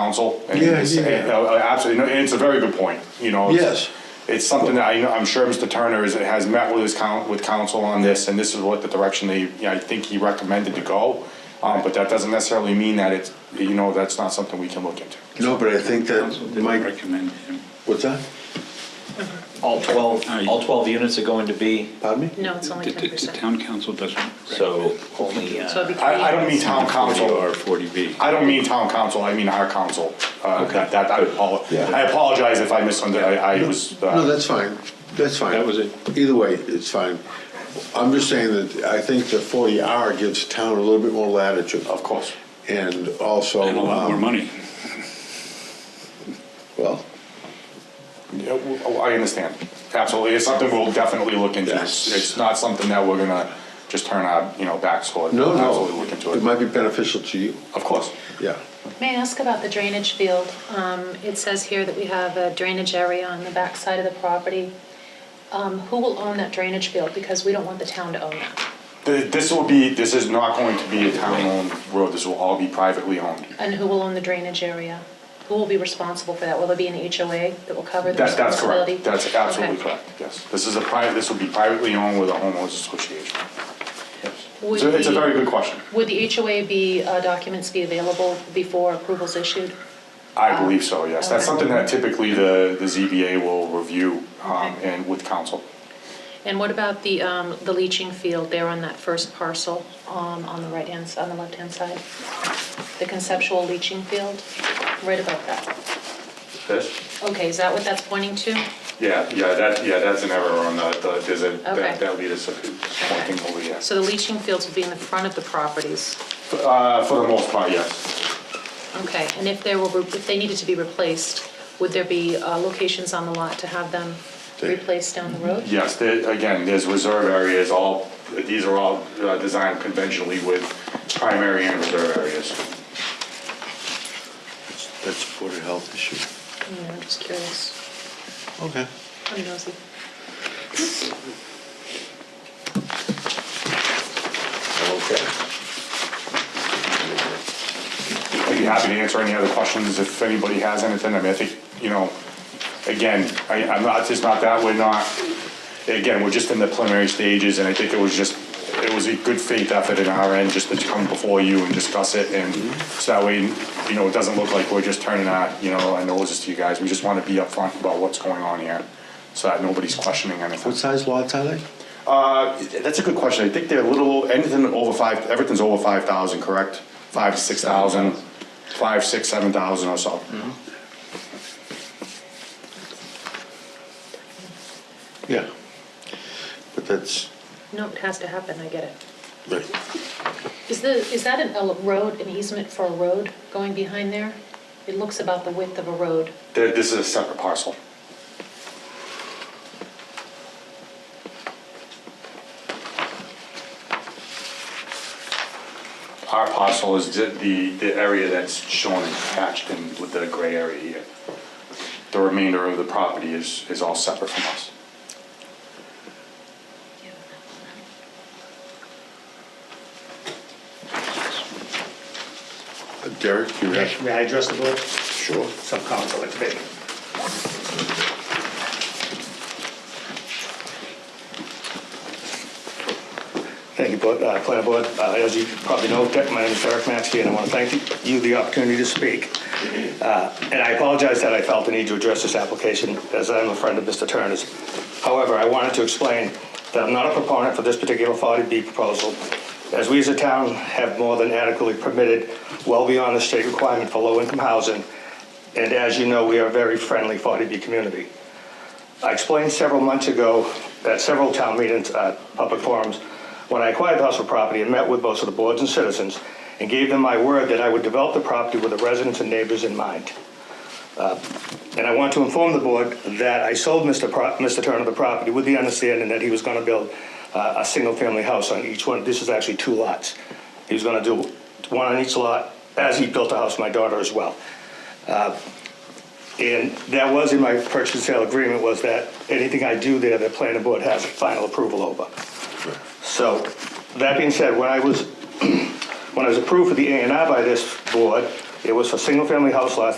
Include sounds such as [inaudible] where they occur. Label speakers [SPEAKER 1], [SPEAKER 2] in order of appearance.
[SPEAKER 1] council. and
[SPEAKER 2] Yeah,
[SPEAKER 1] it's-
[SPEAKER 2] yeah, yeah.
[SPEAKER 1] and, uh, Absolutely, and it's a very good point, you know. it's-
[SPEAKER 2] Yes.
[SPEAKER 1] It's something that I, know- I'm sure Mr. Turner is, has met with his coun, with council on this, and this is what the direction they, you know, I think he recommended to go. Um, but that doesn't necessarily mean that it's, you know, that's not something we can look into.
[SPEAKER 2] No, but I think that
[SPEAKER 3] Council did
[SPEAKER 2] Mike,
[SPEAKER 3] recommend him.
[SPEAKER 2] what's that?
[SPEAKER 4] All 12,
[SPEAKER 3] Aye.
[SPEAKER 4] all 12 units are going to be,
[SPEAKER 2] Pardon me?
[SPEAKER 5] No, it's
[SPEAKER 3] The,
[SPEAKER 5] only
[SPEAKER 3] the-
[SPEAKER 5] ten
[SPEAKER 3] the
[SPEAKER 5] percent.
[SPEAKER 3] town council doesn't.
[SPEAKER 4] so only, uh,
[SPEAKER 5] So it'd be three
[SPEAKER 1] I, I don't mean
[SPEAKER 5] units.
[SPEAKER 1] town council,
[SPEAKER 3] Or forty B.
[SPEAKER 1] I don't mean town council, I mean our council. Uh, that, that, I apo-
[SPEAKER 2] Yeah.
[SPEAKER 1] I apologize if I misunderstood, I, I was. uh,
[SPEAKER 2] No, that's fine, that's fine.
[SPEAKER 3] That was it.
[SPEAKER 2] Either way, it's fine. I'm just saying that I think the forty R gives town a little bit more latitude.
[SPEAKER 1] Of course.
[SPEAKER 2] And also.
[SPEAKER 3] And a lot more
[SPEAKER 2] um,
[SPEAKER 3] money.
[SPEAKER 2] Well,
[SPEAKER 1] Yeah, w- oh, I understand, absolutely, it's something we'll definitely look into. It's
[SPEAKER 2] Yes.
[SPEAKER 1] it's not something that we're gonna just turn our, you know, backs toward.
[SPEAKER 2] no,
[SPEAKER 1] Absolutely look
[SPEAKER 2] no,
[SPEAKER 1] into
[SPEAKER 2] it
[SPEAKER 1] it,
[SPEAKER 2] might be beneficial to you,
[SPEAKER 1] of course.
[SPEAKER 2] yeah.
[SPEAKER 5] May I ask about the drainage field? Um, It says here that we have a drainage area on the backside of the property. Um, Who will own that drainage field? Because we don't want the town to own that.
[SPEAKER 1] Th- This will be, this is not going to be a town-owned road, this will all be privately owned.
[SPEAKER 5] And who will own the drainage area? Who will be responsible for that? Will there be an HOA that will cover the
[SPEAKER 1] That, that's
[SPEAKER 5] responsibility?
[SPEAKER 1] correct, that's absolutely
[SPEAKER 5] Okay.
[SPEAKER 1] correct, yes. This is a private, this will be privately owned with a homeowners association.
[SPEAKER 5] Would
[SPEAKER 1] So it's a
[SPEAKER 5] the-
[SPEAKER 1] very good question,
[SPEAKER 5] Would the HOA be, uh, documents be available before approval's issued?
[SPEAKER 1] I believe so, yes. That's
[SPEAKER 5] Um, Okay.
[SPEAKER 1] something that typically the, the ZBA will review, um,
[SPEAKER 5] Okay.
[SPEAKER 1] and with council.
[SPEAKER 5] And what about the, um, the leaching field there on that first parcel, um, on the right-hand, s- on the left-hand side? The conceptual leaching field, right about that.
[SPEAKER 1] Yes?
[SPEAKER 5] Okay, is that what that's pointing to?
[SPEAKER 1] Yeah, yeah, that, yeah, that's an error on the, the, there's a,
[SPEAKER 5] Okay.
[SPEAKER 1] that, that lead is pointing over here.
[SPEAKER 5] So the leaching fields will be in the front of the properties.
[SPEAKER 1] Uh, for the most part, yes.
[SPEAKER 5] Okay, and if there were, if they needed to be replaced, would there be, uh, locations on the lot to have them replaced down the road?
[SPEAKER 1] Yes, there, again, there's reserve areas, all, these are all uh, designed conventionally with primary and reserve areas.
[SPEAKER 2] That's that's a Board of Health issue.
[SPEAKER 5] Yeah, I'm just curious.
[SPEAKER 2] Okay.
[SPEAKER 5] I'm nosy.
[SPEAKER 2] Okay.
[SPEAKER 1] I'd be happy to answer any other questions if anybody has anything. I mean, I think, you know, again, I, I'm not, it's not that, we're not, again, we're just in the preliminary stages, and I think it was just, it was a good faith effort in our end just to come before you and discuss it, and so that way, you know, it doesn't look like we're just turning our, you know, our noses to you guys. We just want to be upfront about what's going on here, so that nobody's questioning anything.
[SPEAKER 2] What size lots are they?
[SPEAKER 1] Uh, that's a good question. I think they're a little, anything over five, everything's over five thousand, correct? Five to six thousand, five, six, seven thousand or so.
[SPEAKER 2] Yeah. But that's,
[SPEAKER 5] No, it has to happen, I get it.
[SPEAKER 2] right.
[SPEAKER 5] Is the, is that an, a road, an easement for a road going behind there? It looks about the width of a road.
[SPEAKER 1] Th- This is a separate parcel. Our parcel is the- the, the area that's shown and hatched in with the gray area here. The remainder of the property is, is all separate from us.
[SPEAKER 2] Derek, you have?
[SPEAKER 6] May I address the board?
[SPEAKER 2] Sure.
[SPEAKER 6] Some conflict, maybe. Thank you, Board- uh, Planning Board. Uh, As you probably know, Dick, my name is Derek Maxey, and I want to thank you the opportunity to speak. Uh, And I apologize that I felt the need to address this application, as I'm a friend of Mr. Turner's. However, I wanted to explain that I'm not a proponent for this particular 40B proposal, as we as a town have more than adequately permitted, well beyond the state requirement for low-income housing, and as you know, we are a very friendly 40B community. I explained several months ago at several town meetings, uh, public forums, when I acquired the Hustle property and met with most of the boards and citizens and gave them my word that I would develop the property with the residents and neighbors in mind. Uh, And I want to inform the board that I sold Mr. Pro- Mr. Turner the property with the understanding that he was going to build uh, a single-family house on each one. This is actually two lots. He was going to do one on each lot as he built a house for my daughter as well. And that was in my purchase and sale agreement, was that anything I do there, the planning board has final approval over. So, [clears throat] that being said, when I was, when I was approved for the A and R by this board, It was for single-family house lots